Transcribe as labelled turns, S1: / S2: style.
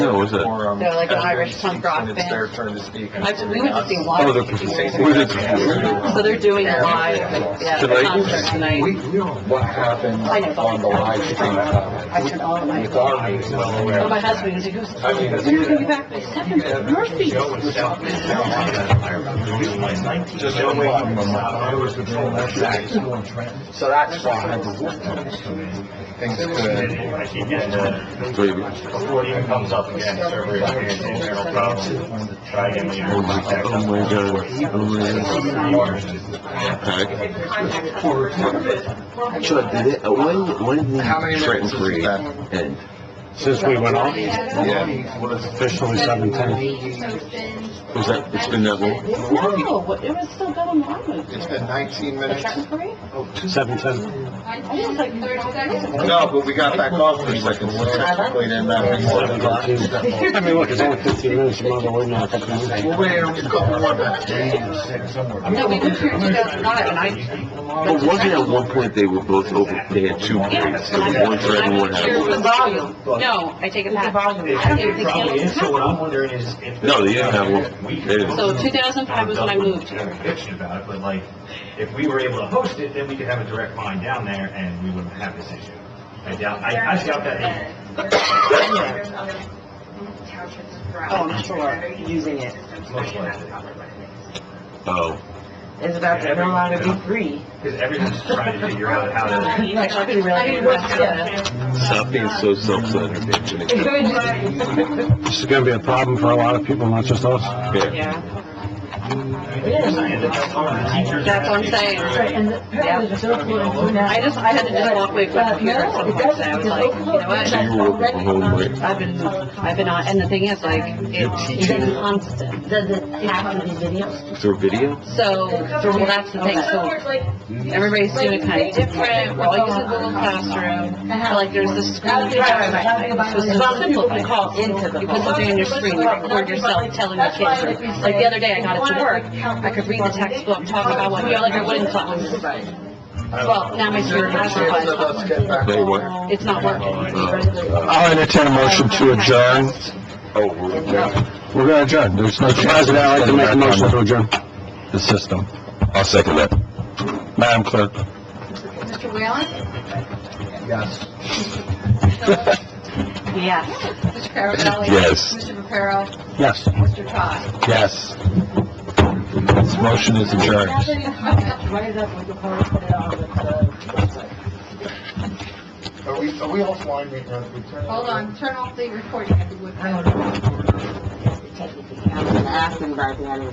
S1: Hill, was it?
S2: They're like an Irish punk rock
S3: It's
S2: band.
S3: their turn um, to speak.
S2: I, we went to see
S1: Oh,
S2: live.
S1: they're
S2: a few
S1: performing.
S2: years ago.
S1: Was
S2: So they're doing a live, like, yeah,
S1: Tonight?
S2: a concert
S3: We,
S2: tonight.
S3: we don't, what happened
S2: I know.
S3: on the live stream, uh,
S2: I turned all of my.
S3: with our meeting, when we
S2: So
S3: were.
S2: my husband was like, who's,
S3: I mean,
S2: when are you gonna be back? Like, seven, Murphy's.
S3: Just one way from the mile. I was the troll. Exactly. So that's why. Things could.
S1: Baby.
S4: Before it even comes up again, it's already like an internal problem. Try again later.
S1: Oh my god, oh my god, oh my god. Okay. Chuck, did it, uh, when, when did
S3: How many
S1: the Trenton
S3: minutes is
S1: Parade
S3: that?
S1: end?
S5: Since we went on,
S3: Yeah.
S5: officially seven ten.
S1: Was that, it's been that long?
S2: No, it was still going on.
S3: It's been nineteen
S2: The
S3: minutes.
S2: Trenton Parade?
S5: Seven ten.
S2: I was like,
S3: No, but we got back off for a second. We're technically in that.
S5: I mean, look, it's only fifteen minutes, you might as well wait now a couple of minutes.
S3: We're way over a couple more minutes.
S2: No, we moved here in two thousand five and I.
S1: But wasn't at one point they were both over, they had two parades,
S2: Yes,
S1: there
S2: and
S1: was
S2: I
S1: one for everyone.
S2: I was here
S1: had
S2: with
S1: one.
S2: volume. No, I take it back. I don't think they canceled.
S4: So what I'm wondering is if.
S1: No, they didn't have one. They didn't.
S2: So two thousand five was when I moved
S4: I have
S2: here.
S4: a conviction about it, but like, if we were able to host it, then we could have a direct line down there and we wouldn't have this issue. I doubt, I, I doubt that.
S6: There's other townships throughout.
S2: Oh, I'm sure, using it.
S4: Most likely.
S1: Oh,
S2: It's about
S4: to turn out to be
S2: free.
S4: Because everyone's trying to figure out how to.
S2: Like, I could really do that.
S1: stop being so self-centered, Anthony.
S5: This is gonna be a problem for a lot of people, not just us.
S1: Yeah.
S2: Yeah,
S4: That's
S2: that's what I'm saying. I just, I had to just walk away from the computer at some point, and I was like, you know
S1: So
S2: what?
S1: you were working from home, right?
S2: I've been, I've been on, and the thing is, like, it's been constant.
S7: Does it have to be videos?
S1: Through video?
S2: So, so, well, that's the thing, so everybody's doing it kind of different, we're all using Google Classroom, but, like, there's this school. This is simple, you call, you put something on your screen, you record yourself telling the kids, like, the other day, I got it to work, I could read the textbook, talk about what, you know, like, I wouldn't class. Well, now my student has to
S3: Chance of us
S2: class,
S3: get back.
S1: They were,
S2: it's not working.
S1: uh,
S5: I'll entertain a motion to adjourn.
S1: oh, we're, yeah.
S5: We're gonna adjourn. There's no president, I'd like to make a motion to adjourn. The system.
S1: I'll second that.
S5: Madam Clerk.
S6: Mr. Whalen?
S3: Yes.
S2: Yes.
S6: Mr. Caravelli?
S1: Yes.
S6: Mr. Reparo?
S5: Yes.
S6: Mr. Todd?
S5: Yes. This motion is adjourned.
S2: uh,
S3: Are we, are we offline right now? We turn-
S6: Hold on, turn off the recording if you would.
S7: Ask them about the other